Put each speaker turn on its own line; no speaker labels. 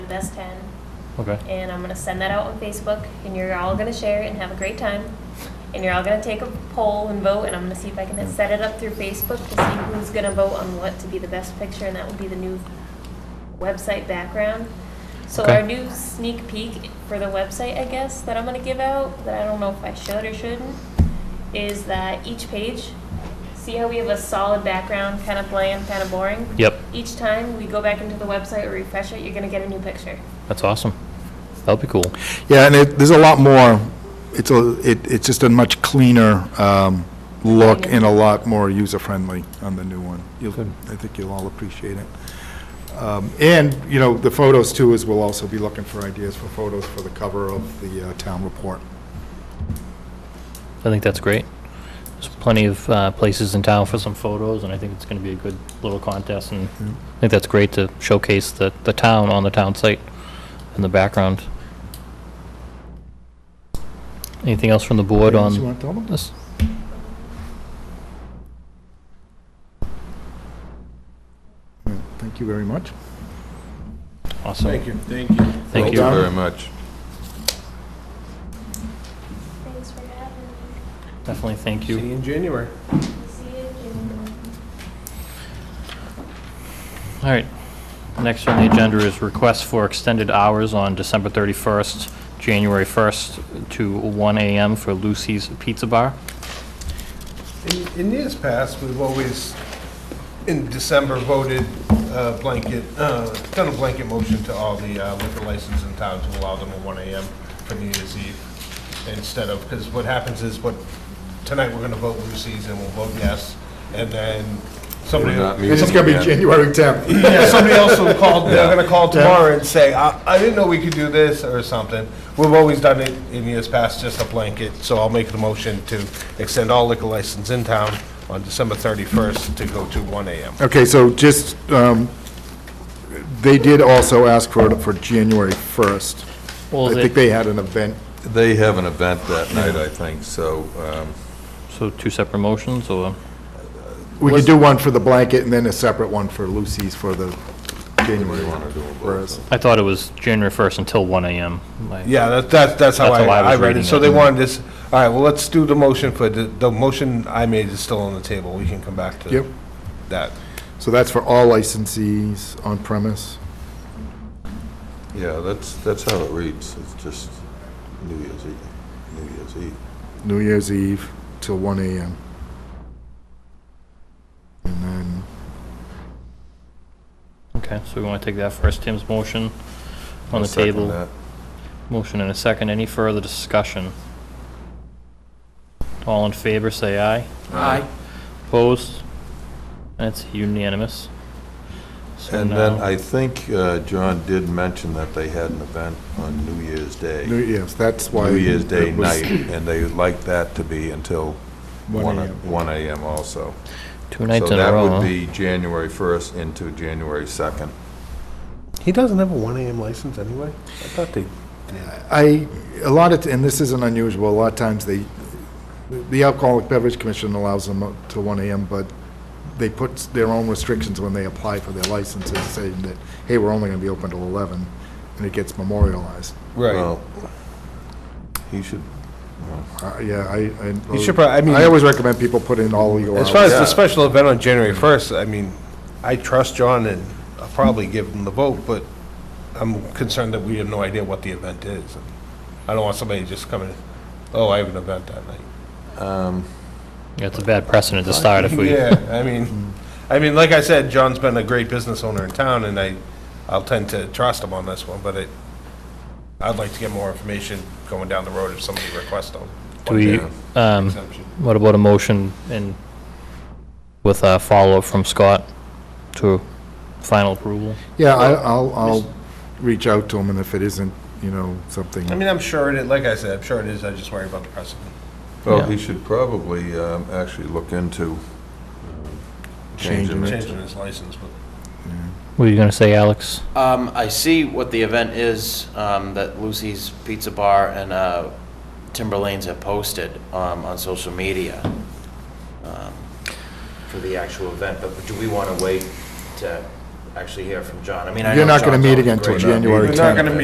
best ten,
Okay.
and I'm gonna send that out on Facebook, and you're all gonna share it and have a great time. And you're all gonna take a poll and vote, and I'm gonna see if I can set it up through Facebook to see who's gonna vote on what to be the best picture, and that will be the new website background. So
Okay.
our new sneak peek for the website, I guess, that I'm gonna give out, that I don't know if I should or shouldn't, is that each page, see how we have a solid background, kind of bland, kind of boring?
Yep.
Each time we go back into the website or refresh it, you're gonna get a new picture.
That's awesome. That'll be cool.
Yeah, and it, there's a lot more, it's a, it, it's just a much cleaner, um, look and a lot more user-friendly on the new one. You'll,
Good.
I think you'll all appreciate it. Um, and, you know, the photos too, is we'll also be looking for ideas for photos for the cover of the uh, town report.
I think that's great. There's plenty of uh, places in town for some photos, and I think it's going to be a good little contest, and I think that's great to showcase the, the town on the town site in the background. Anything else from the board
You
on
want to tell them?
this?
Yeah, Thank you very much.
Awesome. Thank you.
Thank you.
Thank
Well
you.
very much.
Thanks for having me.
Definitely thank
See
you.
you in January.
See you
All right. Next on the agenda is request for extended hours on December 31st, January 1st to 1 AM for Lucy's Pizza Bar.
In- In years past, we've always, in December, voted uh, blanket, uh, done a blanket motion to all the uh, liquor license in town to allow them at 1 AM for New Year's Eve instead of, because what happens is what, tonight we're going to vote Lucy's and we'll vote yes, and then somebody.
We're not meeting.
It's gonna be January tenth.
Yeah, somebody else will call, they're gonna call tomorrow and say, I, I didn't know we could do this, or something. We've always done it in years past, just a blanket, so I'll make the motion to extend all liquor license in town on December thirty-first to go to one AM.
Okay, so just, um, they did also ask for it for January first.
Well,
I
is
think
it-
they had an event
They have an event that night, I think, so, um,
So two separate motions, or?
We could do one for the blanket and then a separate one for Lucy's for the January
we
one.
want to do them both.
Whereas,
I thought it was January 1st until 1 AM. Like-
Yeah, that, that's, that's how
That's
I,
how I was
I read
reading
it. So
it.
they wanted this, all right, well, let's do the motion for, the, the motion I made is still on the table, we can come back
Yep.
to that.
So that's for all licensees on premise.
Yeah, that's, that's how it reads, it's just New Year's Eve, New Year's Eve.
New Year's Eve till one AM. And then,
Okay, so we want to take that first, Tim's motion
I'll
on the
second
table.
that.
Motion and a second, any further discussion? All in favor, say aye.
Aye.
Opposed? That's unanimous. So
And then
now-
I think uh, John did mention that they had an event on New Year's
New
Day,
Year's, that's why.
New Year's Day
it was
night, and they would like that to be until
1
one
a.m.
one AM also.
Two nights in a
So that
row,
would
huh?
be January 1st into January 2nd.
He doesn't have a one AM license anyway? I thought they.
I, a lot of, and this isn't unusual, a lot of times they, the Alcoholic Beverage Commission allows them up to one AM, but they put their own restrictions when they apply for their licenses, saying that, hey, we're only gonna be open till eleven, and it gets memorialized.
Right.
Well, He should,
Uh, Yeah, I, I.
You should prob- I mean-
I always recommend people put in all legal hours.
As far as
Yeah.
the special event on January 1st, I mean, I trust John and I'll probably give him the vote, but I'm concerned that we have no idea what the event is. I don't want somebody just coming, oh, I have an event that night.
Yeah, It's a bad precedent to start if we,
Yeah, I mean, I mean, like I said, John's been a great business owner in town and I, I'll tend to trust him on this one, but it, I'd like to get more information going down the road if somebody requests them.
do we, um,
Exemption.
what about a motion and with a follow-up from Scott to final approval?
Yeah, I, I'll, I'll reach out to them, and if it isn't, you know, something.
I mean, I'm sure it, is- like I said, I'm sure it is, I just worry about the precedent.
well,
Yeah.
he should probably um, actually look into
Changing
changing
it.
it.
Changing his license, but.
What are you going to say, Alex?
Um, I see what the event is, um, that Lucy's Pizza Bar and, uh, Timberlanes have posted, um, on social media, um, for the actual event, but do we wanna wait to
actually hear from John. I mean, I know
You're not going to
John's
meet
always
again until
great.
January
We're
10th.
not gonna meet